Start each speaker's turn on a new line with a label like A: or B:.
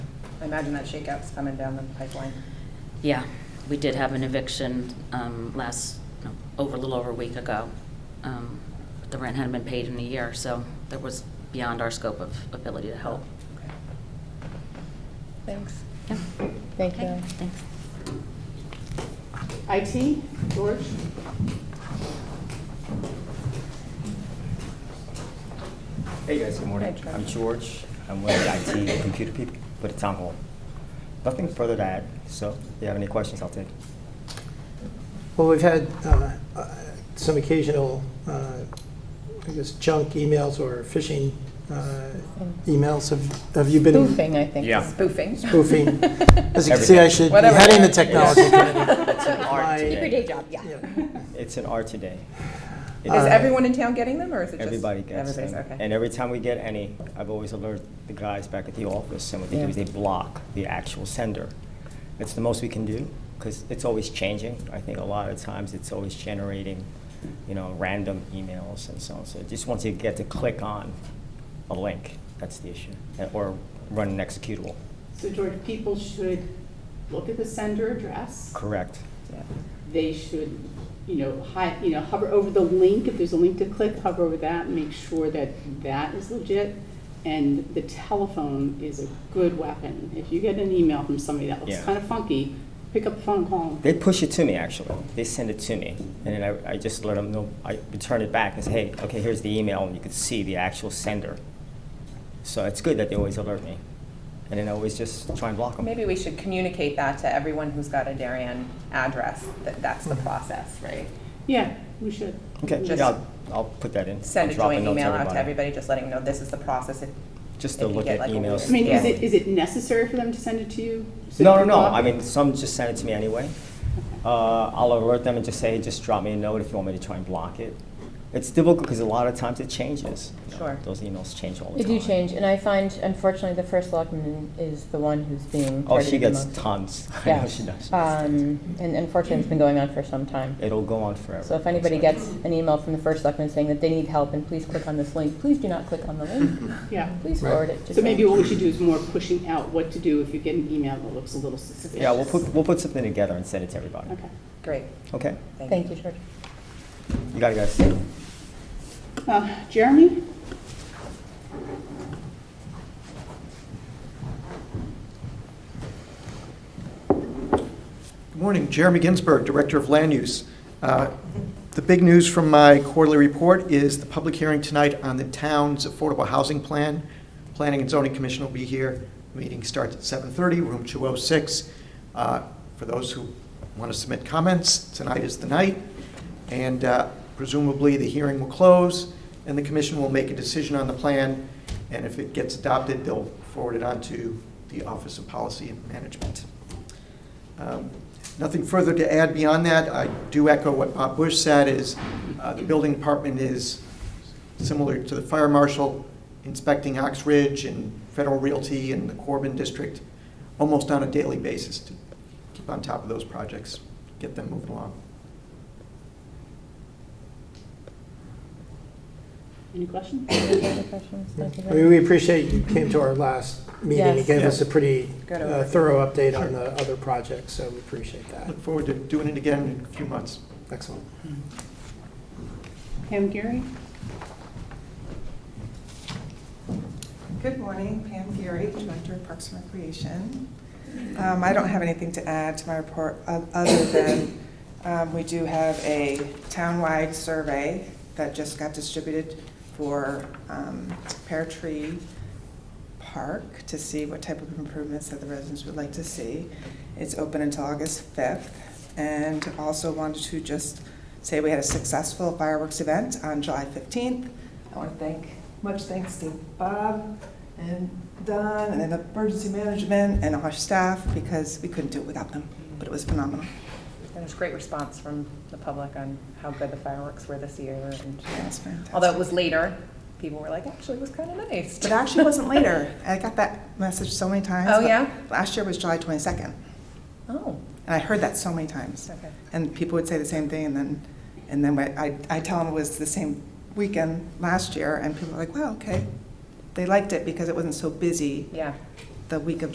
A: I imagine that shakeout's coming down the pipeline.
B: Yeah, we did have an eviction um, last, no, over, a little over a week ago. Um, The rent hadn't been paid in a year, so that was beyond our scope of ability to help.
A: Okay. Thanks.
B: Yeah.
A: Thank
B: Okay, thanks.
C: IT, George?
D: Hey guys, good morning.
A: Hi, George.
D: I'm George. I'm with the IT and computer people with the town hall. Nothing further to add, so if you have any questions, I'll take.
E: Well, we've had uh, uh, some occasional, uh, I guess, junk emails or phishing uh, emails. Have- Have you been
A: Spoofing, I think.
D: Yeah.
A: Spoofing.
E: spoofing? As you can see, I should be
A: Whatever.
E: heading the technology committee.
D: It's an art
E: My-
A: Keep your day
D: today.
A: job, yeah.
E: Yeah.
D: It's an art today.
A: Is
D: It's-
E: Uh,
A: everyone in town getting them, or is it just?
D: Everybody gets
A: everybody's-
D: them.
A: okay.
D: And every time we get any, I've always alerted the guys back at the office, and what they do
A: Yeah.
D: is they block the actual sender. It's the most we can do, because it's always changing. I think a lot of times it's always generating, you know, random emails and so on. So it just once you get to click on a link, that's the issue, and- or run an executable.
C: So George, people should look at the sender address.
D: Correct.
A: Yeah.
C: They should, you know, hi, you know, hover over the link, if there's a link to click, hover over that, and make sure that that is legit. And the telephone is a good weapon. If you get an email from somebody that looks
D: Yeah.
C: kind of funky, pick up the phone, call 'em.
D: They push it to me, actually. They send it to me. And then I, I just let them know, I return it back and say, hey, okay, here's the email, and you can see the actual sender. So it's good that they always alert me. And then I always just try and block them.
A: Maybe we should communicate that to everyone who's got a Darien address, that that's
D: Mm-hmm.
A: the process, right?
C: Yeah, we should.
D: Okay,
A: Just
D: yeah, I'll, I'll put that in.
A: Send
D: I'll
A: a
D: drop
A: joint
D: note
A: email out to everybody, just letting them know this is the process. If-
D: Just
A: if
D: to
A: you
D: look
A: get,
D: at
A: like, a weird
D: emails.
C: I mean, is
A: Yeah.
C: it, is it necessary for them to send it to you? So you
D: No, no,
C: can
D: no.
C: block
D: I
C: it?
D: mean, some just send it to me anyway. Uh, I'll alert them and just say, just drop me a note if you want me to try and block it. It's difficult because a lot of times it changes. You know,
A: Sure.
D: Those emails change all the
F: They
D: time.
F: do change, and I find unfortunately the first selectman is the one who's being
D: Oh, she
F: targeted the
D: gets
F: most.
D: tons. I
F: Yeah.
D: know she does.
F: Um, and unfortunately, it's been going on for some time.
D: It'll go on forever.
F: So if anybody gets an email from the first selectman saying that they need help and please click on this link, please do not click on the link.
C: Yeah.
F: Please
E: Right.
F: forward it to.
C: So maybe
F: someone.
C: what we should do is more pushing out what to do if you get an email that looks a little suspicious.
D: Yeah, we'll put, we'll put something together and send it to everybody.
C: Okay.
A: Great,
D: Okay?
A: thank
F: Thank
A: you.
F: you, George.
D: You got it, guys.
C: Uh, Jeremy?
G: Good morning, Jeremy Ginsberg, Director of Land Use. Uh, The big news from my quarterly report is the public hearing tonight on the town's affordable housing plan. Planning and Zoning Commission will be here. Meeting starts at 7:30, room 206. Uh, For those who want to submit comments, tonight is the night, and uh, presumably the hearing will close, and the commission will make a decision on the plan, and if it gets adopted, they'll forward it on to the Office of Policy and Management. Um, Nothing further to add beyond that. I do echo what Bob Bush said, is uh, the building department is similar to the fire marshal inspecting Ox Ridge and Federal Realty and the Corbin District almost on a daily basis to keep on top of those projects, get them moving along.
C: Any questions?
F: Any other questions? Thank you
E: I
F: very
E: mean,
F: much.
E: we appreciate you came to our last meeting. and
F: Yes.
E: gave us
G: Yeah.
E: a pretty
A: Good
E: uh,
A: overview.
E: thorough update on the other projects, so we appreciate that.
G: Look forward to doing it again in a few months.
E: Excellent.
C: Pam Gary?
H: Good morning, Pam Geary, Director of Parks and Recreation. Um, I don't have anything to add to my report o- other than um, we do have a townwide survey that just got distributed for um, Pear Tree Park to see what type of improvements that the residents would like to see. It's open until August 5th. And also wanted to just say we had a successful fireworks event on July 15th. I want to thank, much thanks to Bob and Don and emergency management and our staff because we couldn't do it without them, but it was phenomenal.
A: And it's great response from the public on how good the fireworks were this year, and
H: Yeah, it was fantastic.
A: although it was later, people were like, actually, it was kind of nice.
H: It actually wasn't later. I got that message so many times.
A: Oh,
H: but
A: yeah?
H: Last year was July 22nd, and
A: Oh,
H: I heard that so many times.
A: okay.
H: And people would say the same thing, and then, and then I, I- I tell them it was the same weekend last year, and people are like, well, okay. They liked it because it wasn't so busy
A: Yeah.
H: the week of